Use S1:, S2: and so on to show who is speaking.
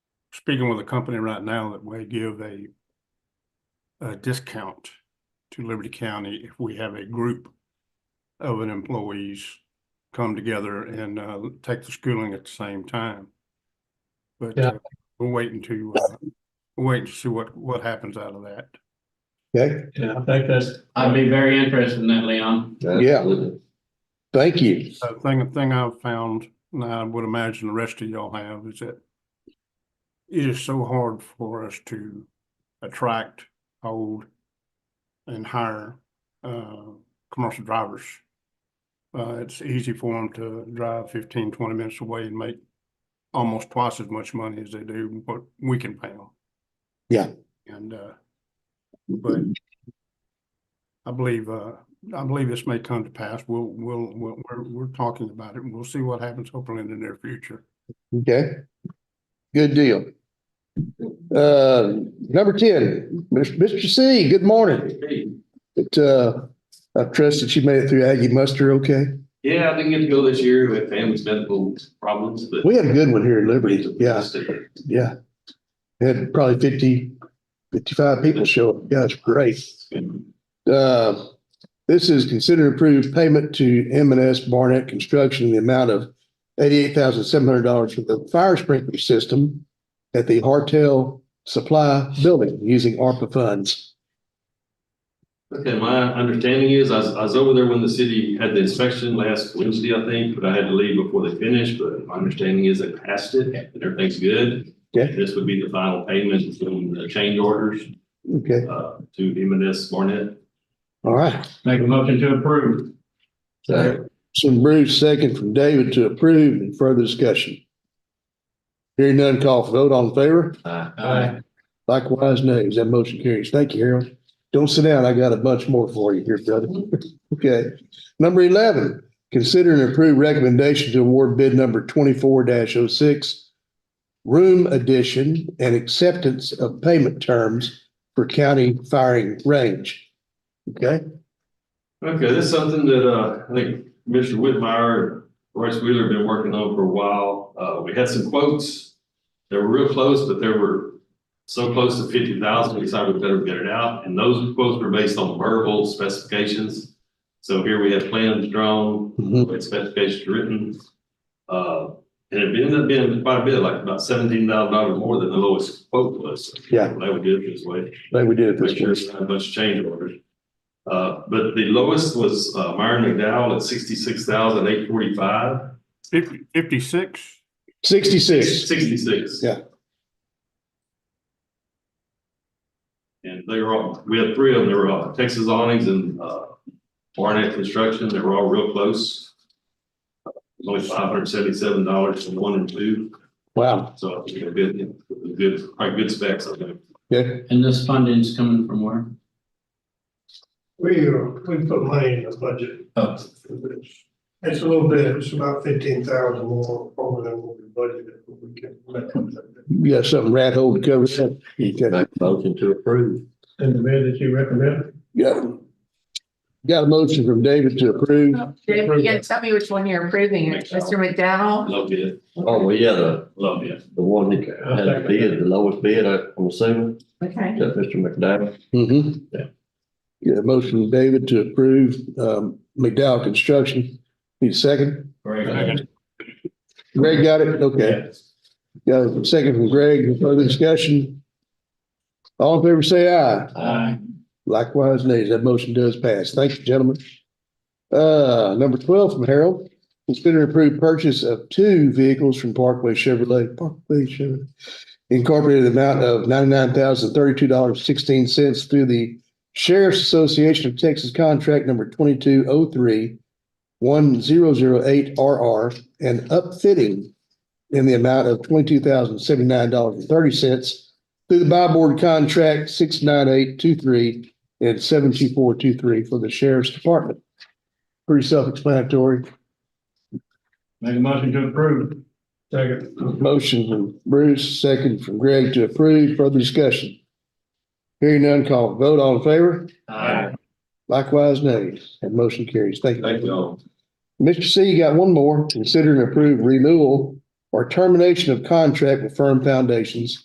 S1: speaking with a company right now that may give a a discount to Liberty County if we have a group of an employees come together and uh take the schooling at the same time. But
S2: Yeah.
S1: uh, we're waiting to uh, we're waiting to see what what happens out of that.
S3: Okay,
S2: Yeah, I think that's,
S4: I'd be very interested in that, Leon.
S3: Yeah. thank you.
S1: The thing, the thing I've found, and I would imagine the rest of y'all have, is that it is so hard for us to attract, hold, and hire, uh, commercial drivers. Uh, it's easy for them to drive 15, 20 minutes away and make almost twice as much money as they do what we can pay them.
S3: Yeah.
S1: And, uh, but I believe, uh, I believe this may come to pass. We'll, we'll, we'll, we're, we're talking about it and we'll see what happens hopefully in the near future.
S3: Okay, good deal. Uh, number ten, Mr. Mr. C, good morning. It, uh, I trust that you made it through Aggie muster, okay?
S5: Yeah, I didn't get to go this year with family's medical problems, but.
S3: We had a good one here in Liberty, yeah, yeah. Had probably 50, 55 people show up, yeah, it's great. Uh, this is considered approved payment to M and S Barnett Construction in the amount of eighty-eight thousand seven hundred dollars for the fire sprinkler system at the Hartel Supply Building using ARPA funds.
S5: Okay, my understanding is, I was, I was over there when the city had the inspection last Wednesday, I think, but I had to leave before they finished, but my understanding is they passed it, and everything's good.
S3: Okay.
S5: This would be the final payment from the change orders,
S3: Okay,
S5: uh, to M and S Barnett.
S3: all right.
S4: Make a motion to approve.
S3: So from Bruce, second from David to approve and further discussion. Hearing none, call for vote. All in favor?
S2: I,
S3: Likewise, nays. That motion carries. Thank you, Harold. Don't sit down. I got a bunch more for you here, brother. Okay. Number eleven, consider and approve recommendation to award bid number twenty-four 6 room addition and acceptance of payment terms for county firing range. Okay,
S5: Okay, this is something that, uh, I think Commissioner Whitmire, Royce Wheeler have been working on for a while. Uh, we had some quotes. They were real close, but they were so close to fifty thousand, we decided we better get it out. And those quotes were based on verbal specifications. So here we have plans drawn,
S3: Mhm.
S5: with specifications written. Uh, and it ended up being quite a bit, like about seventeen thousand dollars more than the lowest quote was.
S3: Yeah.
S5: That would do it this way
S3: Glad we did it
S5: which
S3: this year.
S5: there's not much change orders. Uh, but the lowest was, uh, Myron McDowell at sixty-six thousand eight forty-five,
S1: Fifty, fifty-six?
S3: Sixty-six.
S5: sixty-six.
S3: Yeah.
S5: And they were all, we had three of them, they were all Texas awnings and, uh, Barnett Construction, they were all real close. It was Only five hundred seventy-seven dollars for one and two,
S3: Wow.
S5: so I think they're good, good, quite good specs, I think.
S3: Okay.
S4: And this funding's coming from where?
S6: We, uh, we put money in the budget.
S4: Oh.
S6: for this. It's a little bit, it's about fifteen thousand more over than what we budgeted, but we can. make up that.
S3: You got something rat hole to cover? Okay.
S5: Motion to approve.
S6: And the bid that you recommend?
S3: Yeah. Got a motion from David to approve.
S7: Dave, you gotta tell me which one you're approving, Mr. McDowell?
S5: Love it,
S8: Oh, well, yeah, the,
S5: love it.
S8: the one that had the bid, the lowest bid, I- I'm assuming,
S7: Okay,
S8: that Mr. McDowell.
S3: Mm-hmm.
S5: Yeah.
S3: Yeah, motion from David to approve, um, McDowell Construction. Need a second?
S1: Second.
S3: Greg got it? Okay. Got a second from Greg. Further discussion? All in favor, say aye.
S4: Aye.
S3: Likewise, nays. That motion does pass. Thank you, gentlemen. Uh, number twelve from Harold. Consider and approve purchase of two vehicles from Parkway Chevrolet, Parkway Chevrolet. Incorporated in the amount of ninety-nine thousand thirty-two dollars sixteen cents through the Sheriff's Association of Texas Contract Number twenty-two oh three one zero zero eight RR and upfitting in the amount of twenty-two thousand seventy-nine dollars and thirty cents through the buy board contract six nine eight two three and seven two four two three for the sheriff's department. Pretty self-explanatory.
S2: make a motion to approve. Second.
S3: Motion from Bruce, second from Greg to approve. Further discussion. Hearing none, call for vote. All in favor?
S5: Aye.
S3: Likewise, nays. That motion carries. Thank you.
S5: Thank you all.
S3: Mr. C, you got one more. Consider and approve renewal or termination of contract with Firm Foundations